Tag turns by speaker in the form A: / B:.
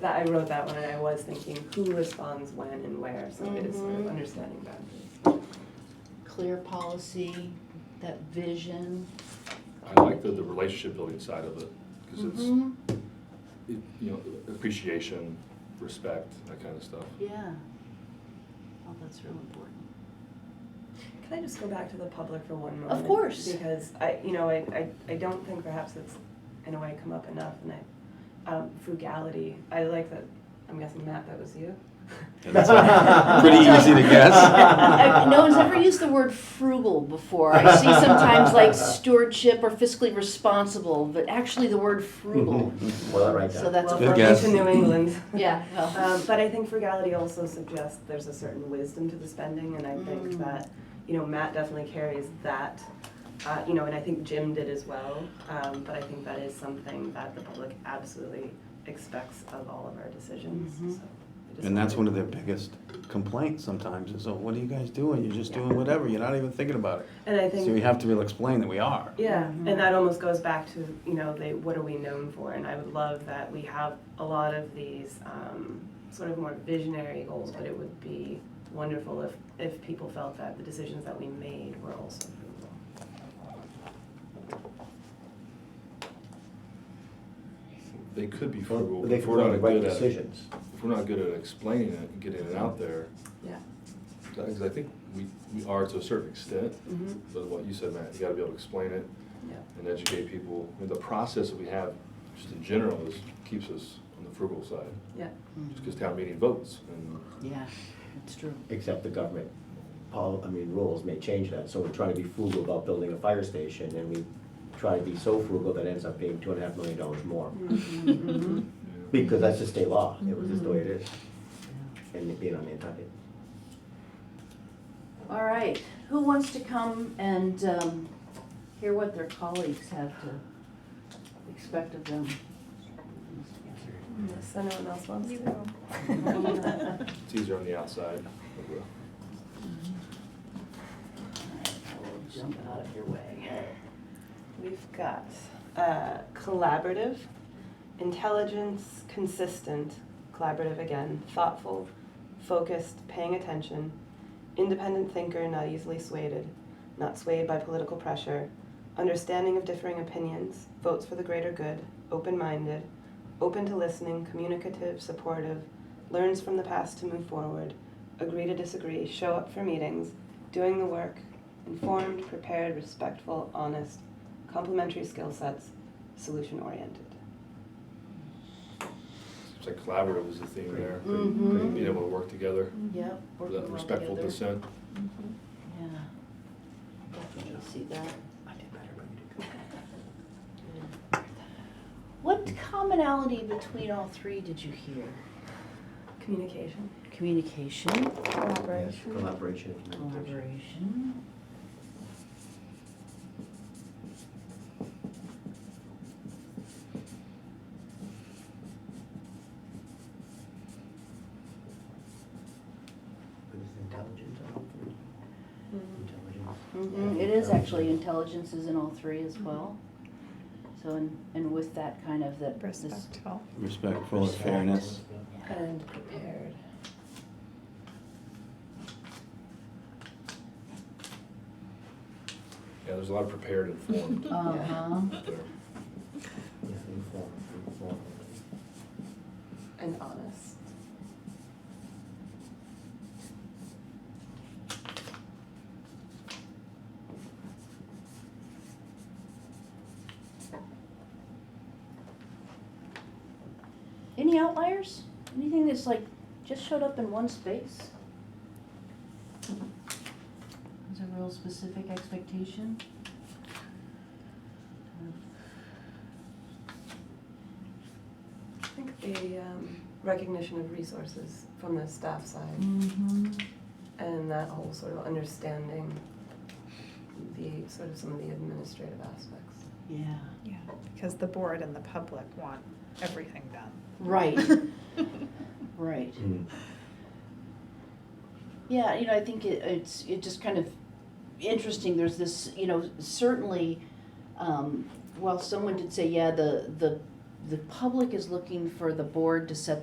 A: That, I wrote that one and I was thinking who responds when and where, so it is sort of
B: Mhm.
A: understanding boundaries.
B: clear policy, that vision.
C: I like the, the relationship building side of it, because it's,
B: Mhm.
C: it- you know, appreciation, respect, that kind of stuff.
B: Yeah. Oh, that's real important.
A: Can I just go back to the public for one moment?
B: Of course.
A: Because I, you know, I, I, I don't think perhaps it's in a way come up enough and I, um, frugality, I like that, I'm guessing Matt, that was you?
D: That's pretty easy to guess.
B: I- I- No one's ever used the word frugal before. I see sometimes like stewardship or fiscally responsible, but actually the word frugal.
D: Mm-hmm.
E: Well, I write
B: So
E: that.
B: that's a
A: Well,
D: Good
A: we're
B: first.
D: guess.
A: Into New England.
B: Yeah,
A: Um,
B: well,
A: but I think frugality also suggests there's a certain wisdom to the spending, and I think
B: Mm.
A: that, you know, Matt definitely carries that, uh, you know, and I think Jim did as well. Um, but I think that is something that the public absolutely expects of all of our decisions,
B: Mhm.
A: so. I just
D: And that's one
A: wanted-
D: of their biggest complaints sometimes is, oh, what are you guys doing? You're just doing whatever. You're not even thinking about it.
A: And I think.
D: So we have to be able to explain that we are.
A: Yeah,
B: Mhm.
A: and that almost goes back to you know the what are we known for, and I would love that we have a lot of these um, sort of more visionary goals, but it would be wonderful if if people felt that the decisions that we made were also fruitful.
C: They could be
E: Well,
C: frugal.
E: They
C: if
E: can
C: we're not
E: run the right
C: good at-
E: decisions.
C: If we're not good at explaining it and getting it out there,
A: Yeah.
C: because I think we, we are to a certain extent, but what you said, Matt, you gotta be able to explain it
A: Yeah.
C: and educate people. I mean, the process that we have, just in general, is, keeps us on the frugal side,
A: Yeah.
C: just because town meeting votes, and
B: Mm. yeah, that's true.
E: Except the government, pol I mean, rules may change that, so we're trying to be frugal about building a fire station, and we try to be so frugal that it ends up being two and a half million dollars more.
A: Mm-hmm.
C: you know,
E: Because that's just state law, it was just the way it is, and it being on Nantucket.
B: All right, who wants to come and um, hear what their colleagues have to expect of them?
A: Unless anyone else wants to.
C: it's easier on the outside.
B: Jump out of your way.
A: We've got uh, collaborative, intelligence, consistent, collaborative again, thoughtful, focused, paying attention, independent thinker, not easily swayed, not swayed by political pressure, understanding of differing opinions, votes for the greater good, open minded, open to listening, communicative, supportive, learns from the past to move forward, agree to disagree, show up for meetings, doing the work, informed, prepared, respectful, honest, complementary skill sets, solution oriented.
C: It's like collaborative is the theme there,
B: Mhm.
C: being able to work together,
B: Yep.
C: for
B: working
C: that
B: well
C: respectful
B: together.
C: dissent.
B: Yeah. Definitely see that.
E: I did better, but you did
B: What commonality between all three did you hear?
A: Communication.
B: Communication,
E: good. Yes, Collaboration and communication.
B: collaboration.
E: But it's intelligence, I don't think.
A: Mm-hmm.
E: Intelligence.
B: Mhm, It is actually, intelligence is in all three as well. So, and, and with that kind of that. this-
F: Respectful.
D: Respectful and fairness.
A: And prepared.
C: Yeah, there's a lot of prepared and formed
B: Uh-huh.
C: there.
E: Yeah, informed, informed.
A: And honest.
B: Any outliers? Anything that's like, just showed up in one space? Is a real specific expectation?
A: I think the um, recognition of resources from the staff side
B: Mm-hmm.
A: and that whole sort of understanding the sort of some of the administrative aspects.
B: Yeah.
F: Yeah, because the board and the public want everything done.
B: Right, right.
E: Mm.
B: Yeah, you know, I think it, it's, it just kind of interesting, there's this, you know, certainly, um, while someone did say, yeah, the, the, the public is looking for the board to set